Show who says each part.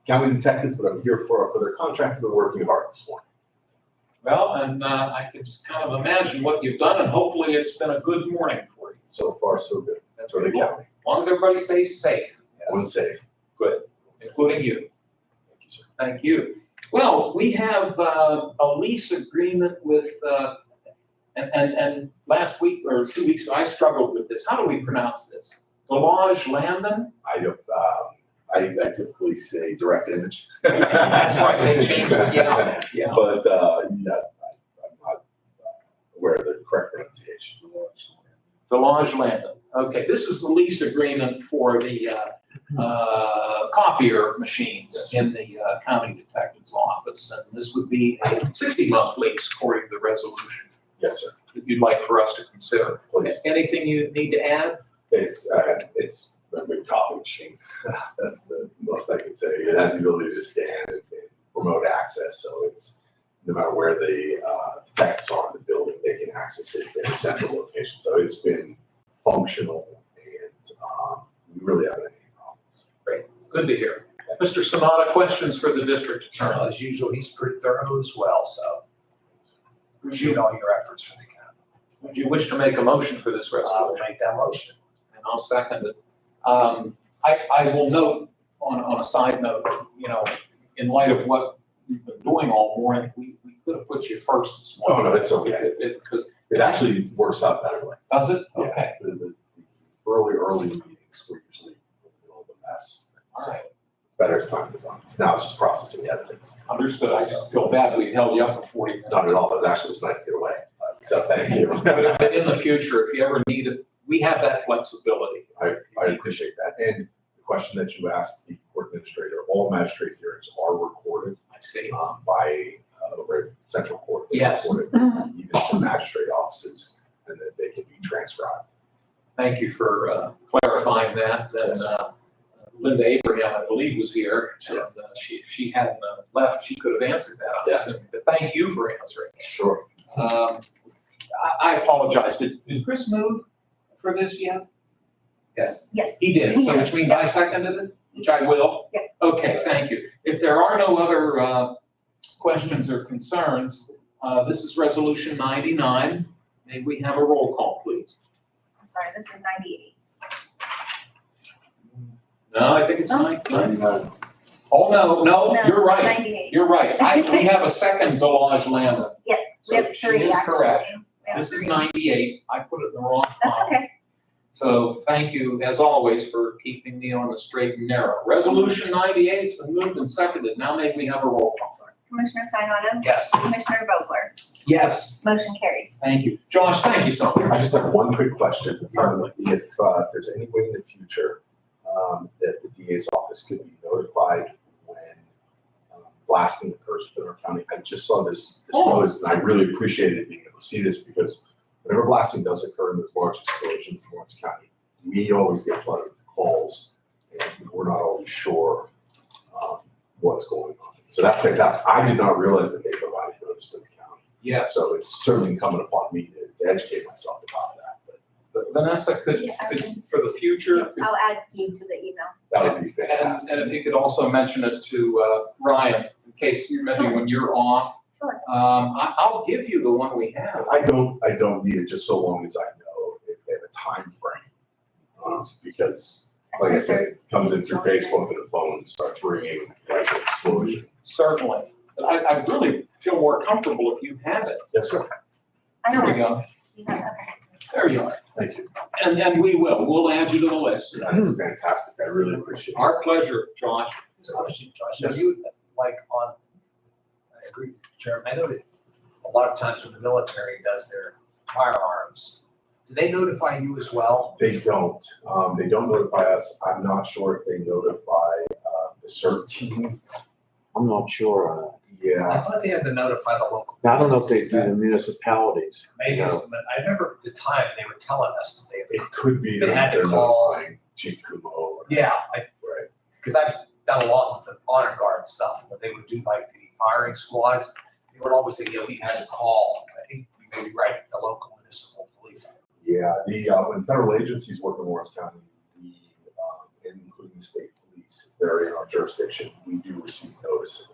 Speaker 1: county detectives that I'm here for, are for their contract, they're working hard this morning.
Speaker 2: Well, and uh, I can just kind of imagine what you've done, and hopefully it's been a good morning for you.
Speaker 1: So far, so good,
Speaker 2: That's
Speaker 1: for
Speaker 2: really
Speaker 1: the
Speaker 2: cool. As
Speaker 1: county,
Speaker 2: long as everybody stays safe,
Speaker 1: one safe.
Speaker 2: Good. including you.
Speaker 1: Thank you, sir.
Speaker 2: Thank you. Well, we have uh, a lease agreement with, uh, and, and, and last week or two weeks, ago, I struggled with this. How do we pronounce this? Delage Landon?
Speaker 1: I don't, um, I I typically say direct image.
Speaker 2: That's right, they changed it, yeah, yeah.
Speaker 1: But, uh, yeah, I- I'm not aware of the correct pronunciation.
Speaker 2: Delage Landon. Okay, this is the lease agreement for the uh, uh, copier machines in the uh, county detective's office. And this would be a 60-month lease according to the resolution
Speaker 1: Yes, sir,
Speaker 2: that you'd like for us to consider.
Speaker 1: please.
Speaker 2: Anything you need to add?
Speaker 1: It's, uh, it's a good copy machine. That's the most I can say. It has the ability to scan and and remote access, so it's, no matter where the, uh, thefts are in the building, they can access it in a central location. So it's been functional and, um, we really haven't had any problems.
Speaker 2: Good to hear. Mr. Sanada, questions for the district
Speaker 3: Well,
Speaker 2: attorney?
Speaker 3: As usual, he's pretty thorough as well, so appreciate all your efforts for the county.
Speaker 2: Would you wish to make a motion for this
Speaker 3: I will
Speaker 2: resolution?
Speaker 3: make that motion.
Speaker 2: And I'll second it. Um, I, I will note, on, on a side note, you know, in light of what we've been doing all morning, we, we could have put you first this morning.
Speaker 1: Oh, no, it's okay.
Speaker 2: If- if- Because,
Speaker 1: It actually works out better way.
Speaker 2: does it?
Speaker 1: Yeah.
Speaker 2: Okay,
Speaker 1: The, the early, early meetings were usually a little of a mess.
Speaker 2: all right,
Speaker 1: It's better as time goes on. 'cause Now it's just processing the evidence.
Speaker 2: understood. I just feel bad we held you up for forty minutes.
Speaker 1: Not at all, but actually it was nice to get away. So thank you.
Speaker 2: But but in the future, if you ever need it, we have that flexibility.
Speaker 1: I, I appreciate that. And the question that you asked the court administrator, all magistrate hearings are recorded
Speaker 2: I see.
Speaker 1: um, by, uh, over at central court. They're
Speaker 2: Yes.
Speaker 1: recorded, Even to magistrate offices, and that they can be transcribed.
Speaker 2: Thank you for uh, clarifying that. And
Speaker 1: Yes.
Speaker 2: uh, Linda Abraham, I believe, was here. And uh, she, if she hadn't uh, left, she could have answered that. I
Speaker 1: Yes.
Speaker 2: assume. But thank you for answering.
Speaker 1: Sure.
Speaker 2: Um, I I apologize. Did did Chris move for this yet? Yes,
Speaker 4: Yes.
Speaker 2: he did. So which means I seconded it, which I will.
Speaker 4: Yeah.
Speaker 2: Okay, thank you. If there are no other uh, questions or concerns, uh, this is Resolution 99. May we have a roll call, please?
Speaker 4: I'm sorry, this is ninety-eight.
Speaker 2: No, I think it's nine. nine.
Speaker 1: Ninety-nine.
Speaker 2: Oh, no, no,
Speaker 4: No,
Speaker 2: you're right.
Speaker 4: Ninety-eight.
Speaker 2: You're right. I, we have a second Delage Landa.
Speaker 4: Yes,
Speaker 2: So
Speaker 4: we have
Speaker 2: she
Speaker 4: three,
Speaker 2: is
Speaker 4: actually.
Speaker 2: correct.
Speaker 4: We have
Speaker 2: This is
Speaker 4: three.
Speaker 2: ninety-eight. I put it in the wrong
Speaker 4: That's
Speaker 2: column.
Speaker 4: okay.
Speaker 2: So thank you, as always, for keeping me on the straight and narrow. Resolution ninety-eight's been moved and seconded. Now may we have a roll call.
Speaker 4: Commissioner Sinata,
Speaker 2: Yes.
Speaker 4: Commissioner Vogler,
Speaker 2: Yes.
Speaker 4: motion carries.
Speaker 2: Thank you. Josh, thank you so
Speaker 1: I
Speaker 2: much.
Speaker 1: just have one quick question. Um, If, uh, if there's any way in the future, um, that the DA's office could be notified when um, blasting occurs within our county, I just saw this, this
Speaker 2: Oh.
Speaker 1: notice, and I really appreciated being able to see this because whenever blasting does occur and there's large explosions in Lawrence County, we always get flooded with calls, and we're not always sure, um, what's going on. So that's fantastic. I did not realize that they provided notice to the county. Yeah,
Speaker 2: Yes.
Speaker 1: so it's certainly incumbent upon me to, to educate myself about that, but
Speaker 2: But Vanessa, could,
Speaker 4: Yeah, I
Speaker 2: could,
Speaker 4: can just-
Speaker 2: for the future, could-
Speaker 4: I'll add you to the email.
Speaker 1: that would be
Speaker 2: and,
Speaker 1: fantastic.
Speaker 2: and if you could also mention it to, uh, Ryan, in case you remember
Speaker 4: Sure.
Speaker 2: when you're off.
Speaker 4: Sure.
Speaker 2: Um, I, I'll give you the one we have.
Speaker 1: I don't, I don't need it just so long as I know if they have a time frame, Um, because like I said, it comes in through Facebook and the phone starts ringing, there's an explosion.
Speaker 2: Certainly. But I, I really feel more comfortable if you have it.
Speaker 1: Yes, sir.
Speaker 4: I
Speaker 2: There
Speaker 4: know,
Speaker 2: you go.
Speaker 4: you have, okay.
Speaker 2: There you are.
Speaker 1: Thank you.
Speaker 2: And, and we will. We'll add you to the list.
Speaker 1: That is fantastic. I really appreciate it.
Speaker 2: Our pleasure, Josh.
Speaker 3: Just a question, Josh,
Speaker 1: Yes.
Speaker 3: are you like on, I agree with you, Chairman, I know that a lot of times when the military does their firearms, do they notify you as well?
Speaker 1: They don't, um, they don't notify us. I'm not sure if they notify, uh, the CERT team.
Speaker 5: I'm not sure on that.
Speaker 1: Yeah,
Speaker 3: I thought they had to notify the local.
Speaker 5: Now, I don't know if they
Speaker 3: police.
Speaker 5: do the municipalities.
Speaker 3: Maybe it's, but I remember at the time they were telling us that
Speaker 1: it could be
Speaker 3: They
Speaker 1: that
Speaker 3: had to
Speaker 1: they're
Speaker 3: call-
Speaker 1: notifying Chief Kumo or,
Speaker 3: they, yeah, I
Speaker 1: right?
Speaker 3: because I've done a lot with the honor guard stuff, when they would do like the firing squads, they would always say, yeah, we had to call, I think we may be right, the local municipal police.
Speaker 1: Yeah, the, uh, when federal agencies work in Lawrence County, the, um, and including the state police, if they're in our jurisdiction, we do receive notice of